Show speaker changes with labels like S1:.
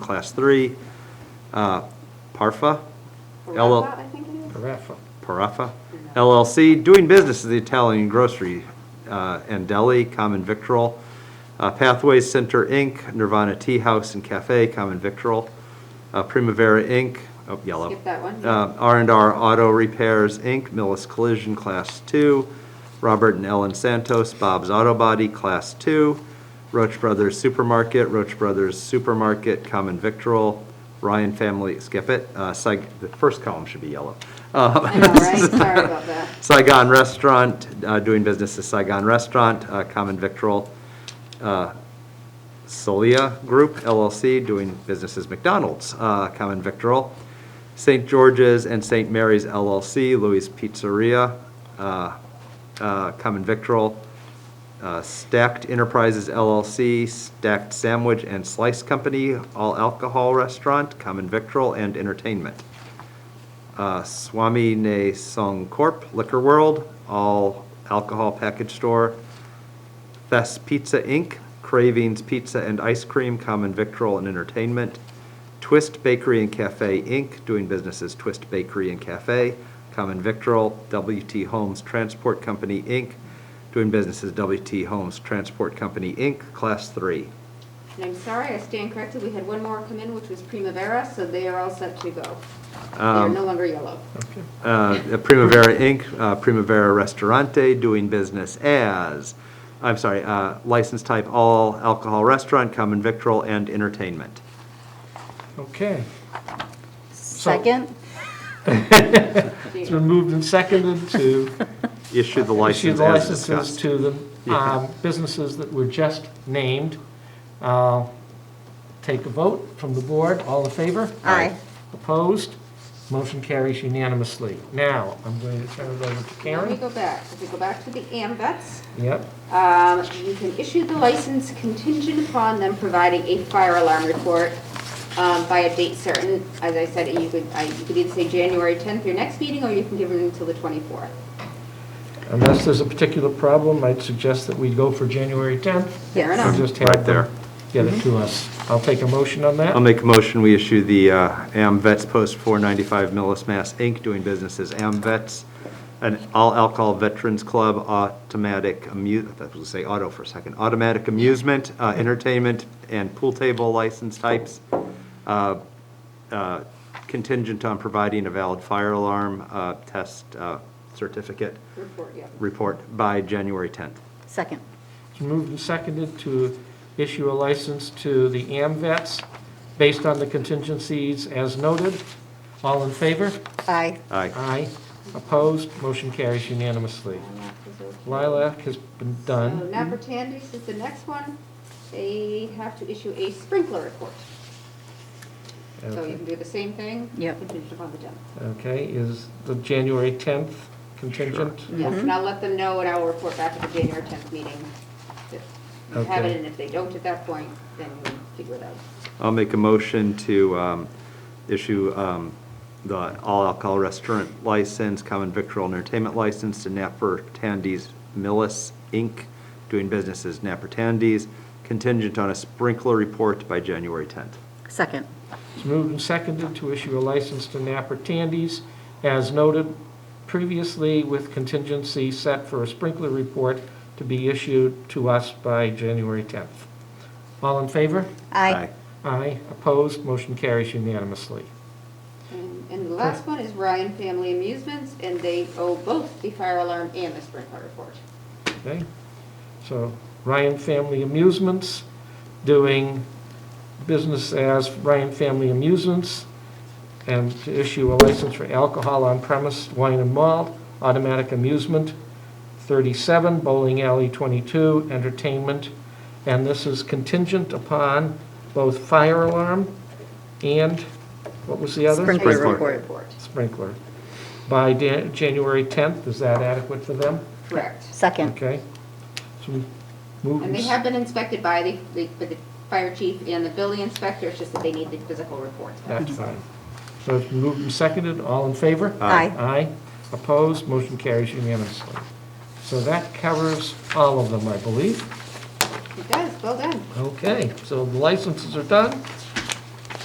S1: Class 3. Uh, Parfa? LL
S2: Parappa, I think it is.
S3: Carafa.
S1: Paraffa LLC, doing business as the Italian Grocery uh, and Deli, Common Victual, uh, Pathways Center, Inc., Nirvana Tea House and Cafe, Common Victual, uh, Primavera, Inc., oh, yellow.
S2: Skip that one.
S1: Uh, r and R Auto Repairs, Inc., Millis Collision, Class 2, Robert and Ellen Santos, Bob's Auto Body, Class 2, Roach Brothers Supermarket, Roach Brothers Supermarket, Common Victual, Ryan Family, skip it, uh, Saig- the first column should be yellow. Uh,
S2: I know, right? Sorry about that.
S1: Saigon Restaurant, uh, doing business as Saigon Restaurant, uh, Common Victual, uh, Celia Group LLC, doing business as McDonald's, uh, Common Victual, St. George's and St. Mary's LLC, Louis Pizzeria, uh, uh, Common Victual, uh, Stacked Enterprises LLC, Stacked Sandwich and Slice Company, All Alcohol Restaurant, Common Victual, and Entertainment. Uh, Swami Ne Song Corp., Liquor World, All Alcohol Package Store, Fest Pizza Inc., Cravings Pizza and Ice Cream, Common Victual and Entertainment, Twist Bakery and Cafe Inc., doing business as Twist Bakery and Cafe, Common Victual, WT Homes Transport Company Inc., doing business as WT Homes Transport Company Inc., Class 3.
S2: And I'm sorry, I stand corrected. We had one more come in, which was Primavera, so they are all set to go. They're no longer yellow.
S3: Okay.
S1: uh, Primavera Inc., uh, Primavera Restaurante, doing business as, I'm sorry, uh, license type all alcohol restaurant, common victual, and entertainment.
S3: Okay.
S4: Second?
S3: It's been moved and seconded to
S1: Issue the
S3: issue
S1: license
S3: the
S1: as
S3: licenses
S1: discussed.
S3: to the um, businesses that were just named. Uh, Take a vote from the board. All in favor?
S4: Aye.
S3: Opposed? Motion carries unanimously. Now, I'm going to turn it over to
S2: Let me
S3: Karen.
S2: go back. If we go back to the AMVets,
S3: Yep.
S2: um, you can issue the license contingent upon them providing a fire alarm report um, by a date certain. As I said, you could, I- you could either say January 10th, your next meeting, or you can give them until the 24th.
S3: Unless there's a particular problem, I'd suggest that we go for January 10th.
S2: Fair
S3: Or
S2: enough.
S3: just
S1: Right
S3: have
S1: there.
S3: them get it
S4: Mm-hmm.
S3: to us. I'll take a motion on
S1: I'll
S3: that.
S1: make a motion, we issue the uh, AmVets Post 495 Millis, Mass. Inc., doing business as AmVets, an all alcohol veterans club, automatic, amu- I was gonna say auto for a second, automatic amusement, uh, entertainment, and pool table license types, uh, uh, contingent on providing a valid fire alarm uh, test uh, certificate
S2: Report, yeah.
S1: report by January 10th.
S4: Second.
S3: It's moved and seconded to issue a license to the AMVets based on the contingencies as noted. All in favor?
S4: Aye.
S1: Aye.
S3: Aye. Opposed? Motion carries unanimously. Lilac has been
S2: So
S3: done.
S2: Nappertandies is the next one. They have to issue a sprinkler report. So you
S3: Okay.
S2: can do the same thing.
S4: Yep.
S2: Contingent upon the tenth.
S3: Okay, is the January 10th contingent?
S4: Mm-hmm.
S2: Yes, and I'll let them know and I'll report back at the January tenth meeting. that we Have
S3: Okay.
S2: it, and if they don't at that point, then we'll figure it out.
S1: I'll make a motion to um, issue um, the all alcohol restaurant license, common victual entertainment license to Napper Tandy's Millis Inc., doing business as Napper Tandy's, contingent on a sprinkler report by January 10th.
S4: Second.
S3: It's moved and seconded to issue a license to Napper Tandy's as noted previously with contingency set for a sprinkler report to be issued to us by January 10th. All in favor?
S4: Aye.
S3: Aye. Opposed? Motion carries unanimously.
S2: And- And the last one is Ryan Family Amusements, and they owe both the fire alarm and the sprinkler report.
S3: Okay? So Ryan Family Amusements doing business as Ryan Family Amusements and to issue a license for alcohol on premise, wine and malt, automatic amusement, 37, bowling alley 22, entertainment. And this is contingent upon both fire alarm and, what was the other?
S4: Sprinkler
S1: Sprinkler.
S4: report.
S3: Sprinkler. By Dan- January 10th, is that adequate for them?
S2: Correct.
S4: Second.
S3: Okay. So we
S2: And
S3: move and
S2: they
S3: s-
S2: have been inspected by the, the- by the fire chief and the building inspector, it's just that they need the physical reports.
S3: That's fine. So it's moved and seconded, all in favor?
S4: Aye.
S3: Aye. Opposed, motion carries unanimously. So that covers all of them, I believe.
S2: It does, well done.
S3: Okay, so the licenses are done.